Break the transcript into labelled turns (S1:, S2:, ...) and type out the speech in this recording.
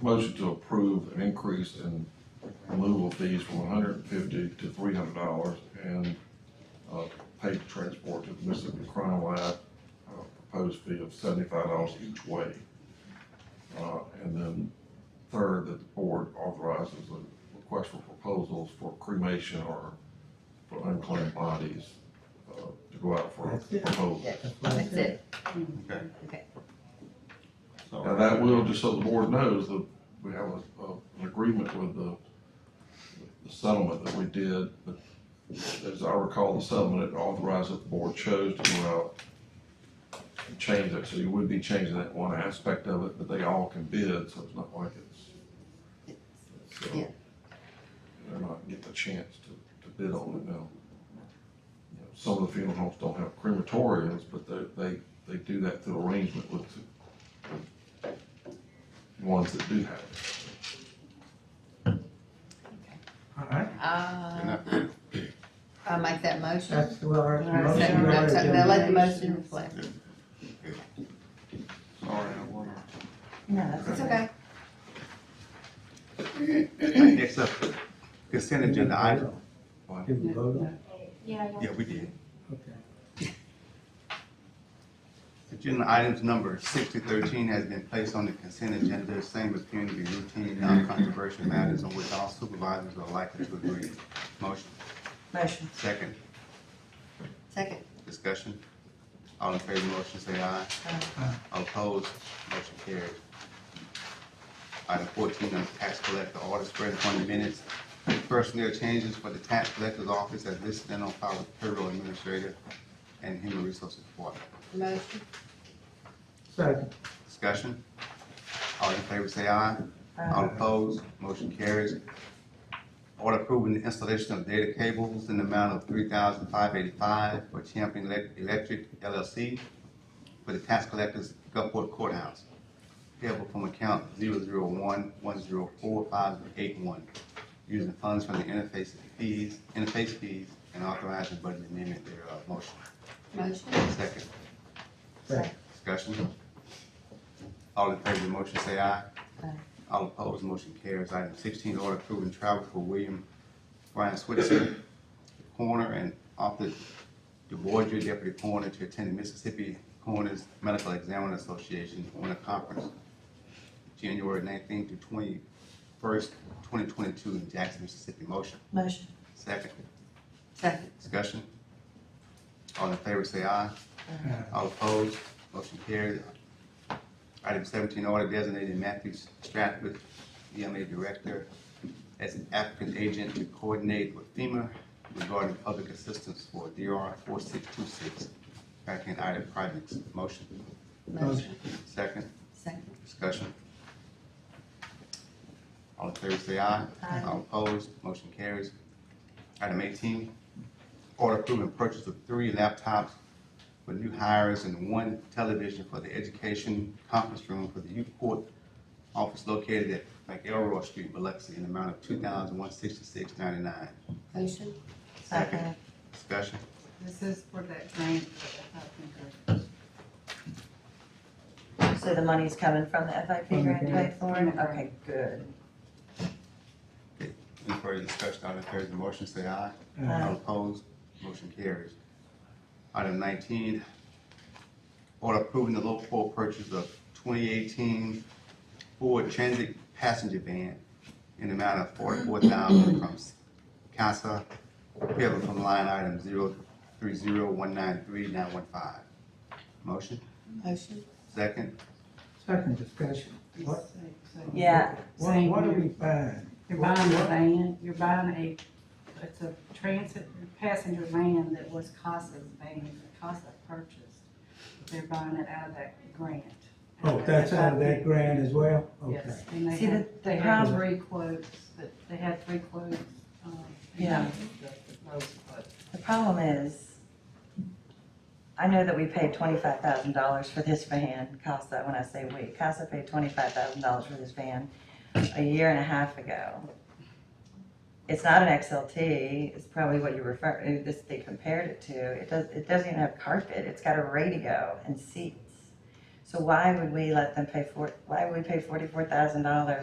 S1: motion to approve an increase in removal fees from one hundred and fifty to three hundred dollars and, uh, paid transport to the Mississippi Crime Lab, uh, proposed fee of seventy-five dollars each way. Uh, and then third, that the board authorizes a request for proposals for cremation or for unclaimed bodies, uh, to go out for
S2: That's it.
S1: proposal.
S3: That's it.
S4: Okay.
S3: Okay.
S4: So-
S1: Now, that will, just so the board knows, that we have a, a- an agreement with the, the settlement that we did. but As I recall, the settlement it authorized that the board chose to go out and change it, so you would be changing that one aspect of it, but they all can bid, so it's not like it's, so.
S3: Yeah.
S1: They're not getting a chance to, to bid on it now. You know, Some of the funeral homes don't have crematoriums, but they, they, they do that through arrangement with the ones that do have it.
S2: All right,
S3: Uh, I'll make that motion.
S2: that's what our.
S3: Or second, no, so- Now let the motion reflect.
S4: Sorry, I wasn't.
S5: No,
S3: It's okay.
S4: Next up, consent agenda item.
S1: Why?
S2: Did we vote on it?
S4: Yeah, we did.
S2: Okay.
S4: Agenda items number six to thirteen has been placed on the consent agenda, same appearing to be routine, non-controversial matters on which all supervisors are likely to agree. Motion,
S5: motion.
S4: second,
S3: Second.
S4: discussion. All in favor of the motion, say aye. Opposed, motion carried. Item fourteen, on tax collector order spread upon the minutes. Personnel changes for the tax collector's office as listed and on file with payroll administrator and human resources department.
S3: Motion.
S2: Second,
S4: Discussion? All in favor say aye.
S5: Uh,
S4: All opposed, motion carries. Order approving the installation of data cables in the amount of three thousand five eighty-five for Champion Elec- Electric LLC for the tax collectors Gulfport Courthouse. Payable from account zero zero one one zero four five eight one, using funds from the interface fees, interface fees, and authorizing budget amendment thereof. Motion,
S3: Motion.
S4: second.
S2: second,
S4: Discussion? All in favor of the motion, say aye.
S3: Aye.
S4: All opposed, motion carries. Item sixteen, order approving travel for William Brian Switzer, coroner, and Arthur DeBoyer, deputy coroner, to attend the Mississippi Coroners Medical Examiner Association on a conference January nineteenth to twenty-first, twenty twenty-two in Jackson, Mississippi. Motion,
S5: Motion,
S4: second.
S3: Second.
S4: Discussion? All in favor, say aye. All opposed, motion carried. Item seventeen, order designating Matthew Stratford, EMA Director, as an applicant agent to coordinate with FEMA regarding public assistance for DR four six two six, tracking item projects. Motion,
S3: Motion.
S4: second,
S3: Second.
S4: discussion. All in favor, say aye.
S5: Aye.
S4: All opposed, motion carries. Item eighteen, order approving purchase of three laptops for new hires and one television for the education conference room for the youth court office located at McElroy Street, Biloxi, in the amount of two thousand one sixty-six ninety-nine.
S3: Motion.
S5: second.
S4: Discussion,
S6: This is for that grant for the health insurance.
S5: So the money's coming from the FIP
S2: From the Mm-hmm.
S5: grant to pay for it?
S6: grant.
S5: Okay, good.
S4: any further discussion, all in favor of the motion, say aye.
S2: Aye.
S4: All opposed, motion carries. Item nineteen, order approving the local four purchase of twenty eighteen Ford Transit passenger van in the amount of forty-four thousand from CASA, payable from line item zero three zero one nine three nine one five. Motion,
S3: Motion.
S4: second,
S2: second discussion. What,
S5: Yeah,
S2: what,
S6: Same
S2: what are
S6: here.
S2: we buying?
S6: You're buying a van, you're buying a, it's a transit passenger van that was CASA's van, CASA purchased. They're buying it out of that grant.
S2: Oh, that's out of that grant as well? Okay.
S6: Yes, and they
S5: See,
S6: had,
S5: the-
S6: they
S5: the
S6: had
S5: problem-
S6: three quotes, that, they had three quotes, um. and
S5: Yeah.
S6: the- the lowest quote.
S5: the problem is, I know that we paid twenty-five thousand dollars for this van, CASA, when I say we, CASA paid twenty-five thousand dollars for this van a year and a half ago. It's not an XLT, it's probably what you refer, uh, this, they compared it to, it does, it doesn't even have carpet, it's got a radio and seats. So why would we let them pay for, why would we pay forty-four thousand dollars